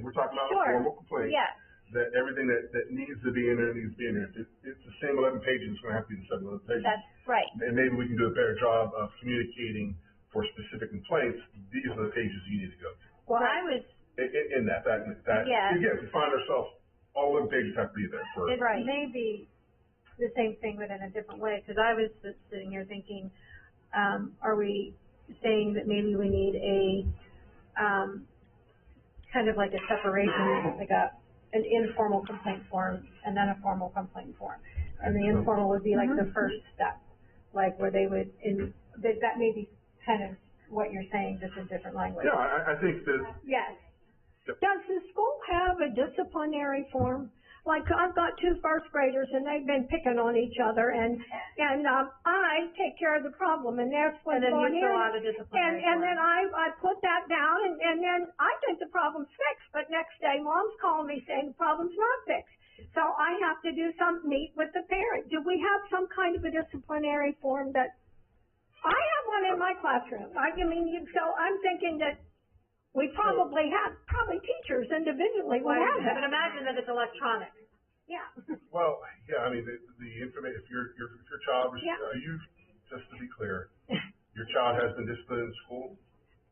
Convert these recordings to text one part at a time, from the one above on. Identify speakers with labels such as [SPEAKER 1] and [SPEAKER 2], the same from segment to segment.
[SPEAKER 1] we're talking about a
[SPEAKER 2] Sure.
[SPEAKER 1] formal complaint,
[SPEAKER 2] Yeah,
[SPEAKER 1] that everything that, that needs to be in there, needs to be in there. If it, it's the same eleven pages, it's gonna have to be the same eleven pages.
[SPEAKER 2] that's right.
[SPEAKER 1] And maybe we can do a better job of communicating for specific complaints, these are the pages you need to go to.
[SPEAKER 2] Well, I was,
[SPEAKER 1] In, in, in that, that, that,
[SPEAKER 2] Yeah.
[SPEAKER 1] again, we find ourselves, all the pages have to be there for,
[SPEAKER 3] It
[SPEAKER 2] Right.
[SPEAKER 3] may be the same thing, but in a different way, because I was just sitting here thinking, um, are we saying that maybe we need a, um, kind of like a separation, like a, an informal complaint form and then a formal complaint form? And the informal would be like the first step, like where they would, in, that, that may be kind of what you're saying, just in different language.
[SPEAKER 1] yeah, I, I think that,
[SPEAKER 3] Yes,
[SPEAKER 4] Does the school have a disciplinary form? Like, I've got two first graders and they've been picking on each other and, and, um, I take care of the problem and that's what's
[SPEAKER 3] and then
[SPEAKER 4] going
[SPEAKER 3] you fill
[SPEAKER 4] in.
[SPEAKER 3] out
[SPEAKER 4] And,
[SPEAKER 3] a disciplinary
[SPEAKER 4] and
[SPEAKER 3] form.
[SPEAKER 4] then I, I put that down and, and then I think the problem's fixed, but next day mom's calling me saying the problem's not fixed. So I have to do some, meet with the parent. Do we have some kind of a disciplinary form that, I have one in my classroom. I mean, you- so I'm thinking that we probably have, probably teachers individually would have that.
[SPEAKER 3] But imagine that it's electronic.
[SPEAKER 4] Yeah,
[SPEAKER 1] well, yeah, I mean, the, the information, if your, your, if your child, was-
[SPEAKER 4] Yeah.
[SPEAKER 1] uh, you, just to be clear, your child has been disciplined in school?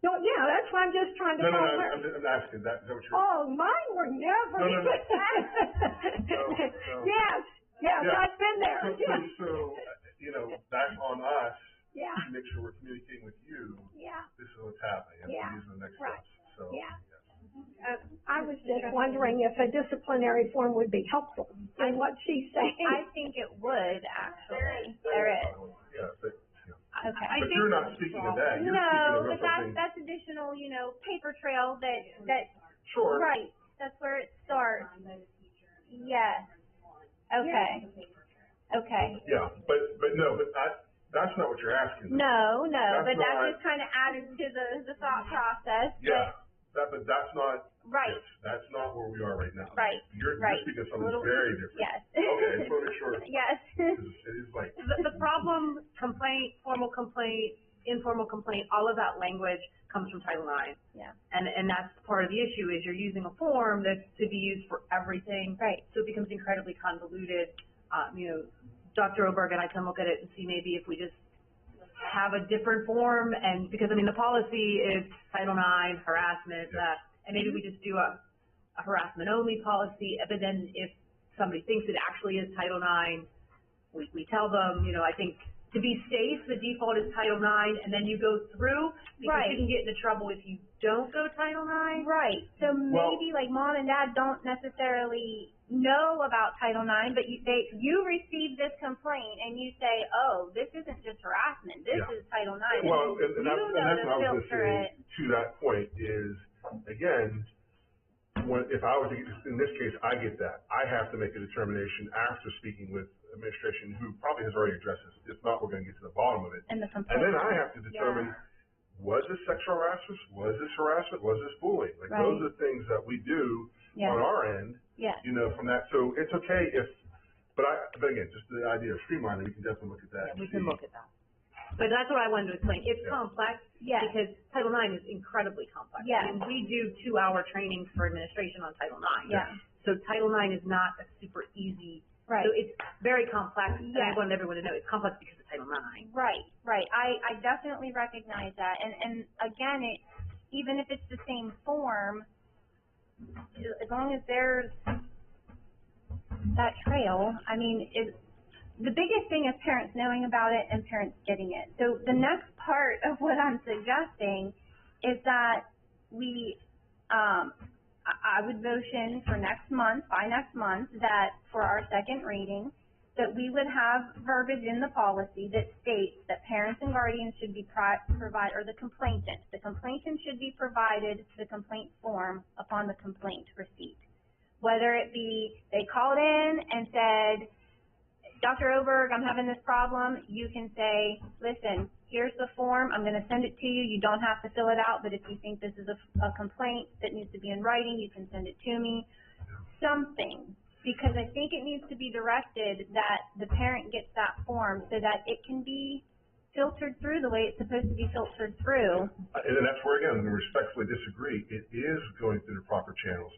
[SPEAKER 4] no, yeah, that's why I'm just trying to
[SPEAKER 1] No, no,
[SPEAKER 4] find
[SPEAKER 1] no,
[SPEAKER 4] where.
[SPEAKER 1] I'm, I'm asking, that, is that what you're?
[SPEAKER 4] Oh, mine were
[SPEAKER 1] No,
[SPEAKER 4] never.
[SPEAKER 1] no, no. no.
[SPEAKER 4] Yes, yes,
[SPEAKER 1] Yeah.
[SPEAKER 4] I've been there,
[SPEAKER 1] So, so,
[SPEAKER 4] yeah,
[SPEAKER 1] so, uh, you know, that's on us
[SPEAKER 4] yeah,
[SPEAKER 1] to make sure we're communicating with you,
[SPEAKER 4] yeah,
[SPEAKER 1] this is what's happening, and
[SPEAKER 4] Yeah,
[SPEAKER 1] these are the next
[SPEAKER 4] right,
[SPEAKER 1] steps, so.
[SPEAKER 4] yeah. Uh, I was just wondering if a disciplinary form would be helpful in what she's
[SPEAKER 2] I
[SPEAKER 4] saying.
[SPEAKER 2] think it would, actually. There is.
[SPEAKER 1] Yeah, but,
[SPEAKER 2] Okay.
[SPEAKER 1] but you're not speaking of that, you're speaking
[SPEAKER 2] No,
[SPEAKER 1] of
[SPEAKER 2] but that's,
[SPEAKER 1] something,
[SPEAKER 2] that's additional, you know, paper trail that, that,
[SPEAKER 1] sure,
[SPEAKER 2] right, that's where it starts. Yes. Okay. Okay.
[SPEAKER 1] yeah, but, but no, but I, that's not what you're asking.
[SPEAKER 2] No, no,
[SPEAKER 1] That's
[SPEAKER 2] but
[SPEAKER 1] not-
[SPEAKER 2] that just kind of added to the, the thought process. but-
[SPEAKER 1] Yeah, that, but that's not,
[SPEAKER 2] Right,
[SPEAKER 1] it. that's not where we are right now.
[SPEAKER 2] right,
[SPEAKER 1] You're, you're
[SPEAKER 2] right.
[SPEAKER 1] speaking of something
[SPEAKER 2] Little-
[SPEAKER 1] very different.
[SPEAKER 2] yes.
[SPEAKER 1] Okay, I just wanna make sure,
[SPEAKER 2] Yes.
[SPEAKER 1] 'cause it is like,
[SPEAKER 3] The, the problem, complaint, formal complaint, informal complaint, all of that language comes from Title IX.
[SPEAKER 2] Yeah.
[SPEAKER 3] And, and that's part of the issue, is you're using a form that's to be used for everything,
[SPEAKER 2] Right,
[SPEAKER 3] so it becomes incredibly convoluted. Um, you know, Dr. Oberg and I can look at it and see maybe if we just have a different form, and, because, I mean, the policy is Title IX, harassment, that, and maybe we just do a, a harassment-only policy, uh, but then if somebody thinks it actually is Title IX, we, we tell them, you know, I think, to be safe, the default is Title IX, and then you go through, because
[SPEAKER 2] Right.
[SPEAKER 3] you can get into trouble if you don't go Title IX.
[SPEAKER 2] right. So
[SPEAKER 1] Well-
[SPEAKER 2] maybe like mom and dad don't necessarily know about Title IX, but you, they, you receive this complaint and you say, oh, this isn't just harassment, this
[SPEAKER 1] Yeah.
[SPEAKER 2] is Title IX.
[SPEAKER 1] Well, and, and that's, and
[SPEAKER 2] You know
[SPEAKER 1] that's
[SPEAKER 2] to
[SPEAKER 1] what I was
[SPEAKER 2] filter
[SPEAKER 1] gonna
[SPEAKER 2] it.
[SPEAKER 1] say, to that point, is, again, when, if I was, to get- in this case, I get that, I have to make a determination after speaking with administration, who probably has already addressed this, if not, we're gonna get to the bottom of it.
[SPEAKER 2] And the
[SPEAKER 1] And
[SPEAKER 2] complaint.
[SPEAKER 1] then I have to determine, was this sexual harassment, was this harassment, was this bullying? Like, those
[SPEAKER 2] Right.
[SPEAKER 1] are the things that we do
[SPEAKER 2] Yeah,
[SPEAKER 1] on our end,
[SPEAKER 2] yeah,
[SPEAKER 1] you know, from that, so it's okay if, but I, but again, just the idea of streamlining, we can definitely look at that.
[SPEAKER 3] Yeah,
[SPEAKER 1] and
[SPEAKER 3] we can
[SPEAKER 1] see.
[SPEAKER 3] look at that. But that's what I wanted to explain. It's
[SPEAKER 1] Yeah.
[SPEAKER 3] complex
[SPEAKER 2] yeah.
[SPEAKER 3] because Title IX is incredibly complex.
[SPEAKER 2] Yeah.
[SPEAKER 3] And we do two-hour trainings for administration on Title IX.
[SPEAKER 2] Yeah.
[SPEAKER 3] So Title IX is not a super easy,
[SPEAKER 2] Right.
[SPEAKER 3] so it's very complex. And I
[SPEAKER 2] Yeah.
[SPEAKER 3] wanted everyone to know it's complex because of Title IX.
[SPEAKER 2] Right, right. I, I definitely recognize that. And, and again, it, even if it's the same form, as long as there's that trail, I mean, it, the biggest thing is parents knowing about it and parents getting it. So the next part of what I'm suggesting is that we, um, I, I would motion for next month, by next month, that for our second reading, that we would have verbiage in the policy that states that parents and guardians should be pri- provide, or the complainant, the complainant should be provided the complaint form upon the complaint receipt. Whether it be, they called in and said, Dr. Oberg, I'm having this problem, you can say, listen, here's the form, I'm gonna send it to you, you don't have to fill it out, but if you think this is a, a complaint that needs to be in writing, you can send it to me. Something, because I think it needs to be directed that the parent gets that form so that it can be filtered through the way it's supposed to be filtered through.
[SPEAKER 1] Uh, And then that's where, again, we respectfully disagree, it is going through the proper channels.